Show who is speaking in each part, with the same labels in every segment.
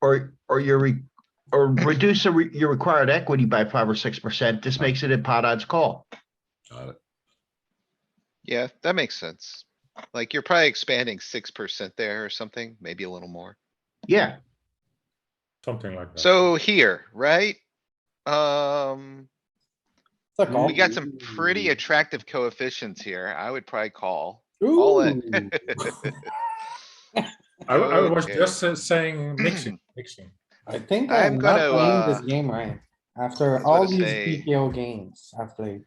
Speaker 1: or, or your, re- or reduce the re- your required equity by five or six percent. This makes it a pot odds call.
Speaker 2: Got it.
Speaker 3: Yeah, that makes sense. Like you're probably expanding six percent there or something, maybe a little more.
Speaker 1: Yeah,
Speaker 2: Something like that.
Speaker 3: So here, right? Um,
Speaker 4: It's a call.
Speaker 3: we got some pretty
Speaker 4: Ooh.
Speaker 3: attractive coefficients here. I would probably call. all in.
Speaker 4: Ooh.
Speaker 2: I, I was
Speaker 3: oh, Okay.
Speaker 2: just uh, saying mixing, mixing.
Speaker 4: I think
Speaker 3: I'm
Speaker 4: I'm not
Speaker 3: gonna,
Speaker 4: playing
Speaker 3: uh,
Speaker 4: this game right. After
Speaker 3: was
Speaker 4: all
Speaker 3: gonna
Speaker 4: these
Speaker 3: say-
Speaker 4: PKO games I've played.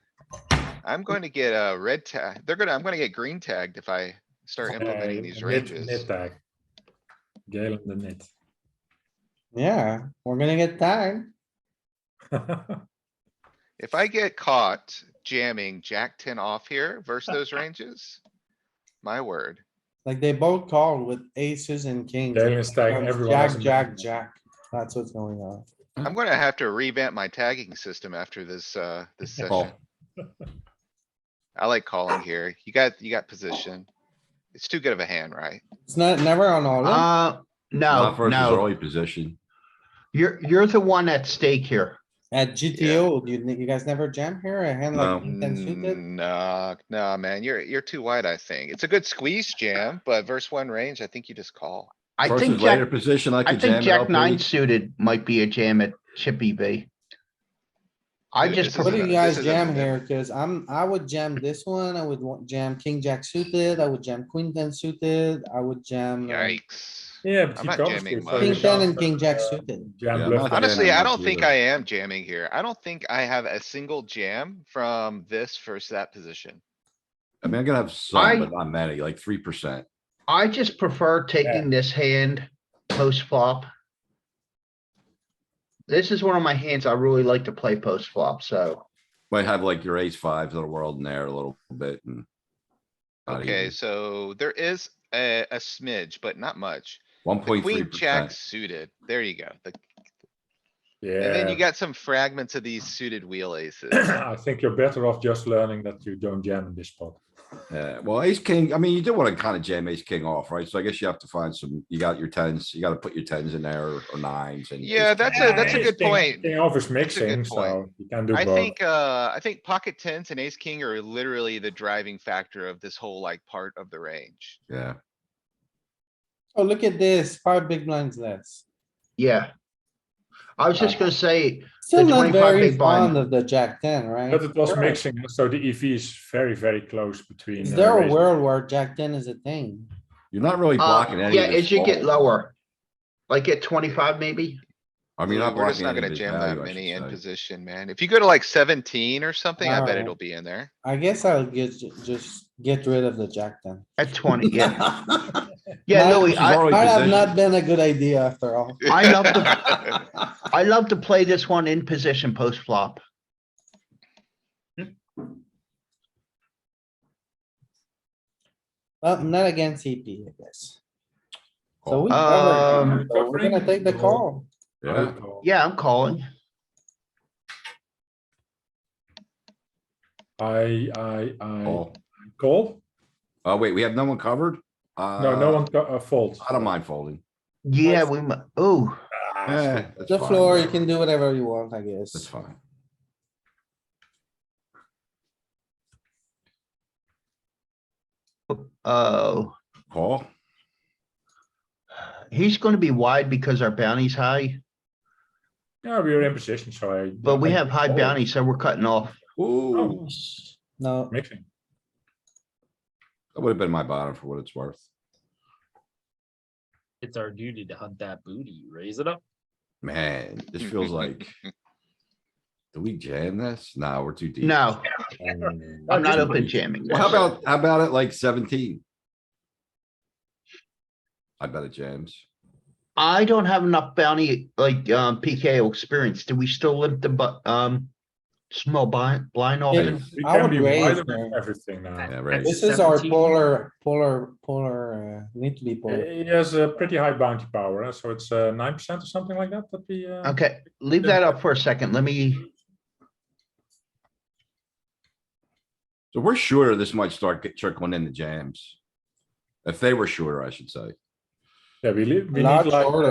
Speaker 3: I'm going to get a red tag. They're gonna, I'm gonna get green tagged if I start implementing
Speaker 2: Uh,
Speaker 3: these
Speaker 2: net-
Speaker 3: ranges.
Speaker 2: Net tag. Galen the net.
Speaker 4: Yeah, we're gonna get tagged.
Speaker 3: If I get caught jamming jack ten off here versus those ranges, my word.
Speaker 4: Like they both called with aces and kings.
Speaker 2: Galen's tagging
Speaker 4: Comes
Speaker 2: everyone. as
Speaker 4: Jack,
Speaker 2: a
Speaker 4: jack,
Speaker 2: net.
Speaker 4: jack. That's what's going on.
Speaker 3: I'm gonna have to revamp my tagging system after this, uh, this session. I like calling here. You got, you got position. It's too good of a hand, right?
Speaker 4: It's not, never on all. in.
Speaker 1: uh, no,
Speaker 5: Not versus
Speaker 1: no,
Speaker 5: early position.
Speaker 1: you're, you're the one at stake here.
Speaker 4: At GTO, you, you guys never jam here? A hand
Speaker 5: No.
Speaker 4: like king ten suited?
Speaker 3: Nah, nah, Mm, man, you're, you're too wide, I think. It's a good squeeze jam, but verse one range, I think you just call.
Speaker 1: I think
Speaker 5: Versus later
Speaker 1: Jack,
Speaker 5: position, I
Speaker 1: I think
Speaker 5: could jam it
Speaker 1: Jack
Speaker 5: up.
Speaker 1: nine suited might be a jam at Chippy V. I
Speaker 3: Dude,
Speaker 1: just,
Speaker 3: this is
Speaker 4: What do
Speaker 1: prefer-
Speaker 3: a-
Speaker 4: you guys
Speaker 3: is
Speaker 4: jam here? Cuz I'm, I would jam this one. I would want jam king, jack suited. I would jam queen ten suited. I would jam. uh,
Speaker 3: Yikes.
Speaker 2: Yeah, but
Speaker 3: I'm
Speaker 2: he
Speaker 3: not
Speaker 2: comes
Speaker 3: jamming
Speaker 2: with
Speaker 3: much.
Speaker 4: King
Speaker 2: very
Speaker 4: ten
Speaker 2: sharp,
Speaker 4: and king
Speaker 2: uh,
Speaker 4: jack suited.
Speaker 5: Yeah,
Speaker 2: Jam
Speaker 5: I'm
Speaker 2: bluff.
Speaker 5: not-
Speaker 3: Honestly, I
Speaker 5: much
Speaker 3: don't think
Speaker 5: either.
Speaker 3: I am jamming here. I don't think I have a single jam from this versus that position.
Speaker 5: I mean, I'm gonna have
Speaker 1: I-
Speaker 5: some, but not many, like three percent.
Speaker 1: I just prefer taking this hand post flop. This is one of my hands I really like to play post flop, so.
Speaker 5: Might have like your ace fives of the world in there a little bit and. not
Speaker 3: Okay,
Speaker 5: even.
Speaker 3: so there is a, a smidge, but not much.
Speaker 5: One
Speaker 3: The
Speaker 5: point three
Speaker 3: queen jack
Speaker 5: percent.
Speaker 3: suited. There you go. The- And then you
Speaker 2: Yeah,
Speaker 3: got some fragments of these suited wheel aces.
Speaker 2: I think you're better off just learning that you don't jam in this spot.
Speaker 5: Yeah, well, ace king, I mean, you do wanna kinda jam ace king off, right? So I guess you have to find some, you got your tens, you gotta put your tens in there or- or nines and.
Speaker 3: Yeah,
Speaker 5: ace
Speaker 3: that's
Speaker 5: king
Speaker 3: a- that's a
Speaker 5: nine.
Speaker 3: good
Speaker 2: King-
Speaker 3: point.
Speaker 2: King off is
Speaker 3: a good
Speaker 2: mixing, so
Speaker 3: point.
Speaker 2: you can do
Speaker 3: I
Speaker 2: both.
Speaker 3: think, uh, I think pocket tens and ace king are literally the driving factor of this whole like part of the range.
Speaker 5: Yeah,
Speaker 4: Oh, look at this, five big blinds less.
Speaker 1: Yeah. I was just gonna say,
Speaker 4: Still
Speaker 1: The
Speaker 4: not
Speaker 1: 25
Speaker 4: very
Speaker 1: big blind.
Speaker 4: fond of the jack ten, right?
Speaker 2: But it was
Speaker 4: Sure.
Speaker 2: mixing, so the EV is very, very close between.
Speaker 4: Is
Speaker 2: uh,
Speaker 4: there a
Speaker 2: raises.
Speaker 4: world where jack ten is a thing?
Speaker 5: you're not really
Speaker 1: uh,
Speaker 5: blocking any
Speaker 1: yeah,
Speaker 5: of
Speaker 1: it
Speaker 5: this
Speaker 1: should get
Speaker 5: fold.
Speaker 1: lower. Like at twenty-five maybe?
Speaker 5: I mean, you're not
Speaker 3: We're just
Speaker 5: blocking
Speaker 3: not
Speaker 5: any
Speaker 3: gonna
Speaker 5: of his
Speaker 3: jam that
Speaker 5: value, I
Speaker 3: many in
Speaker 5: should say.
Speaker 3: position, man. If you go to like seventeen or something, I bet
Speaker 4: Alright.
Speaker 3: it'll be in there.
Speaker 4: I guess I'll get, just get rid of the jack ten.
Speaker 1: At twenty, yeah. Yeah,
Speaker 4: No,
Speaker 1: Louis,
Speaker 5: she's
Speaker 1: I,
Speaker 5: already-
Speaker 4: Might have
Speaker 5: position.
Speaker 4: not been a good idea after all.
Speaker 1: I love the, I love to play this one in position post flop.
Speaker 4: Well, not against CP, I guess. So
Speaker 5: Oh,
Speaker 4: we
Speaker 1: Um,
Speaker 4: covered, so we're gonna take the call.
Speaker 3: Uh,
Speaker 5: Yeah,
Speaker 1: Yeah, I'm calling.
Speaker 2: I, I, I
Speaker 5: oh,
Speaker 2: call?
Speaker 5: oh, wait, we have no one covered?
Speaker 2: No, no one co- uh, folds.
Speaker 5: I don't mind folding.
Speaker 1: Yeah, we, oh,
Speaker 5: Eh,
Speaker 2: Ah,
Speaker 5: that's
Speaker 4: The
Speaker 5: fine,
Speaker 4: floor, you
Speaker 5: whatever.
Speaker 4: can do whatever you want, I
Speaker 5: That's
Speaker 4: guess.
Speaker 5: fine.
Speaker 1: oh,
Speaker 5: Call.
Speaker 1: he's gonna be wide because our bounty's high,
Speaker 2: Yeah, we are in position, so I. Oh,
Speaker 1: but we
Speaker 2: I
Speaker 1: have high
Speaker 5: Oh.
Speaker 2: fold.
Speaker 1: bounty, so we're cutting off.
Speaker 5: Ooh,
Speaker 2: Oh.
Speaker 4: No,
Speaker 2: Mixing.
Speaker 5: that would have been my bottom for what it's worth.
Speaker 6: It's our duty to hunt that booty, raise it up.
Speaker 5: Man, this feels like. Do we jam this? Nah, we're too deep.
Speaker 1: No, I'm not open jamming.
Speaker 5: Well, Oh, How about, how about it like seventeen? I bet it jams.
Speaker 1: I don't have enough bounty, like, um, PKO experience. Do we still limp the, bu- um, small blind, blind off?
Speaker 4: Yeah.
Speaker 1: in?
Speaker 2: We
Speaker 4: I
Speaker 2: can
Speaker 4: would
Speaker 2: be
Speaker 4: raise
Speaker 2: wider
Speaker 4: there.
Speaker 2: with everything now.
Speaker 5: Yeah, right.
Speaker 4: this is our
Speaker 6: 17.
Speaker 4: polar, polar, polar, uh, need to be polar.
Speaker 2: He has a pretty high bounty power, eh, so it's nine percent or something like that, that we. uh,
Speaker 1: Okay, leave that up for a second. Let me,
Speaker 5: So we're sure this might start get- trickling in the jams. If they were shorter, I should say.
Speaker 2: Yeah, we li- we
Speaker 4: Large
Speaker 2: need like.
Speaker 4: order.